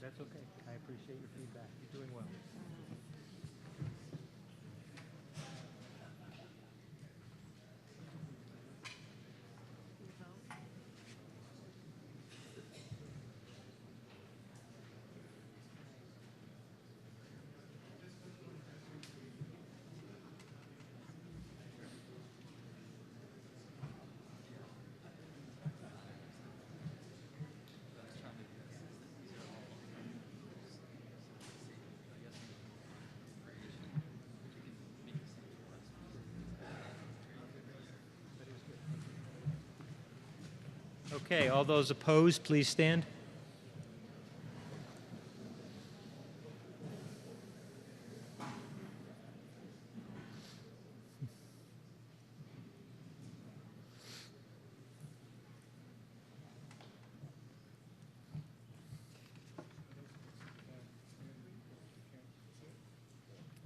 That's okay. I appreciate your feedback. You're doing well. Okay, all those opposed, please stand.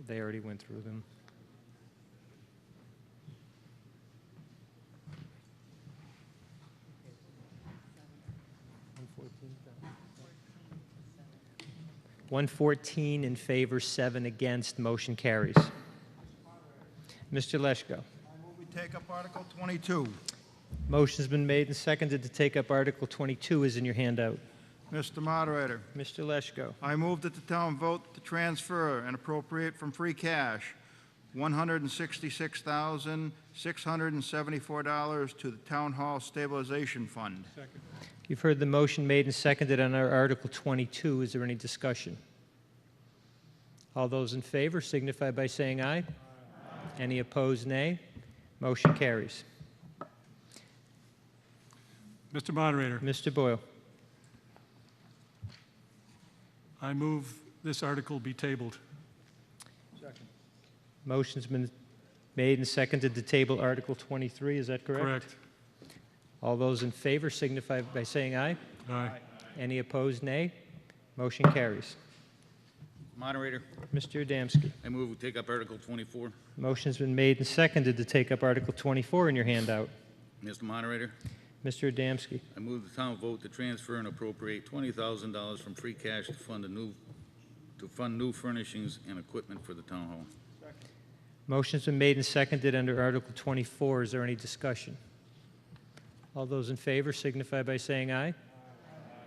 They already went through them. One fourteen in favor, seven against, motion carries. Mr. Leschko. Move we take up Article 22. Motion's been made and seconded to take up Article 22 is in your handout. Mr. Moderator, Mr. Leschko. I move that the town vote to transfer and appropriate from free cash $166,674 to the Town Hall Stabilization Fund. You've heard the motion made and seconded on our Article 22. Is there any discussion? All those in favor signify by saying aye. Any opposed, nay. Motion carries. Mr. Moderator, Mr. Boyle. I move this article be tabled. Motion's been made and seconded to table Article 23. Is that correct? Correct. All those in favor signify by saying aye. Aye. Any opposed, nay. Motion carries. Moderator, Mr. Adamski. I move we take up Article 24. Motion's been made and seconded to take up Article 24 in your handout. Mr. Moderator, Mr. Adamski. I move the town vote to transfer and appropriate $20,000 from free cash to fund a new, to fund new furnishings and equipment for the town hall. Motion's been made and seconded under Article 24. Is there any discussion? All those in favor signify by saying aye.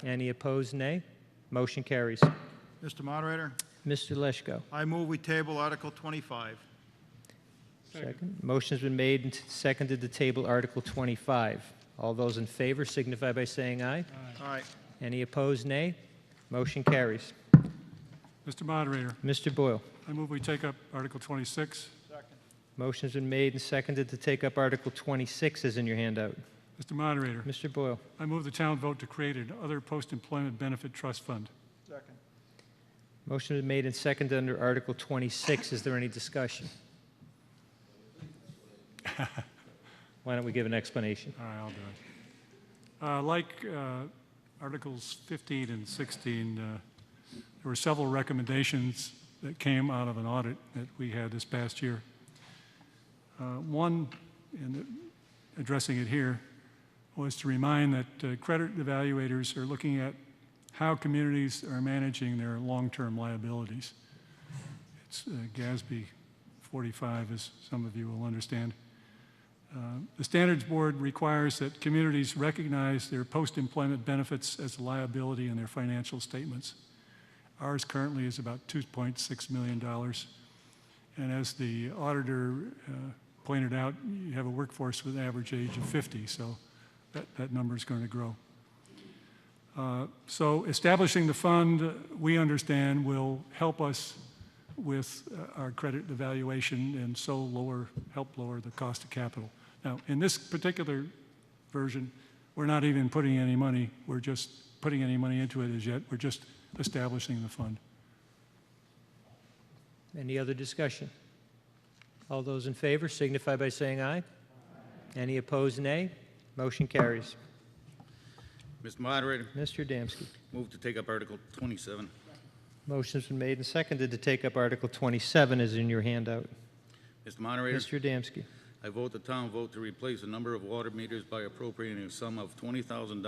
Any opposed, nay. Motion carries. Mr. Moderator, Mr. Leschko. I move we table Article 25. Second. Motion's been made and seconded to table Article 25. All those in favor signify by saying aye. All right, Any opposed, nay. Motion carries. Mr. Moderator, Mr. Boyle. I move we take up Article 26. Motion's been made and seconded to take up Article 26 is in your handout. Mr. Moderator, Mr. Boyle. I move the town vote to create another post-employment benefit trust fund. Motion is made and seconded under Article 26. Is there any discussion? Why don't we give an explanation? All right, I'll do it. Uh, Like uh, Articles 15 and 16, uh, there were several recommendations that came out of an audit that we had this past year. Uh, One, and addressing it here, was to remind that uh, credit evaluators are looking at how communities are managing their long-term liabilities. It's uh, GASB 45, as some of you will understand. The Standards Board requires that communities recognize their post-employment benefits as a liability in their financial statements. Ours currently is about $2.6 million. And as the auditor uh, pointed out, you have a workforce with an average age of 50, so that, that number's going to grow. Uh, So establishing the fund, uh, we understand, will help us with uh, our credit evaluation and so lower, help lower the cost of capital. Now, in this particular version, we're not even putting any money, we're just putting any money into it as yet, we're just establishing the fund. Any other discussion? All those in favor signify by saying aye. Any opposed, nay. Motion carries. Mr. Moderator, Mr. Adamski. move to take up Article 27. Motion's been made and seconded to take up Article 27 is in your handout. Mr. Moderator, Mr. Adamski. I vote the town vote to replace a number of water meters by appropriating a sum of $20,000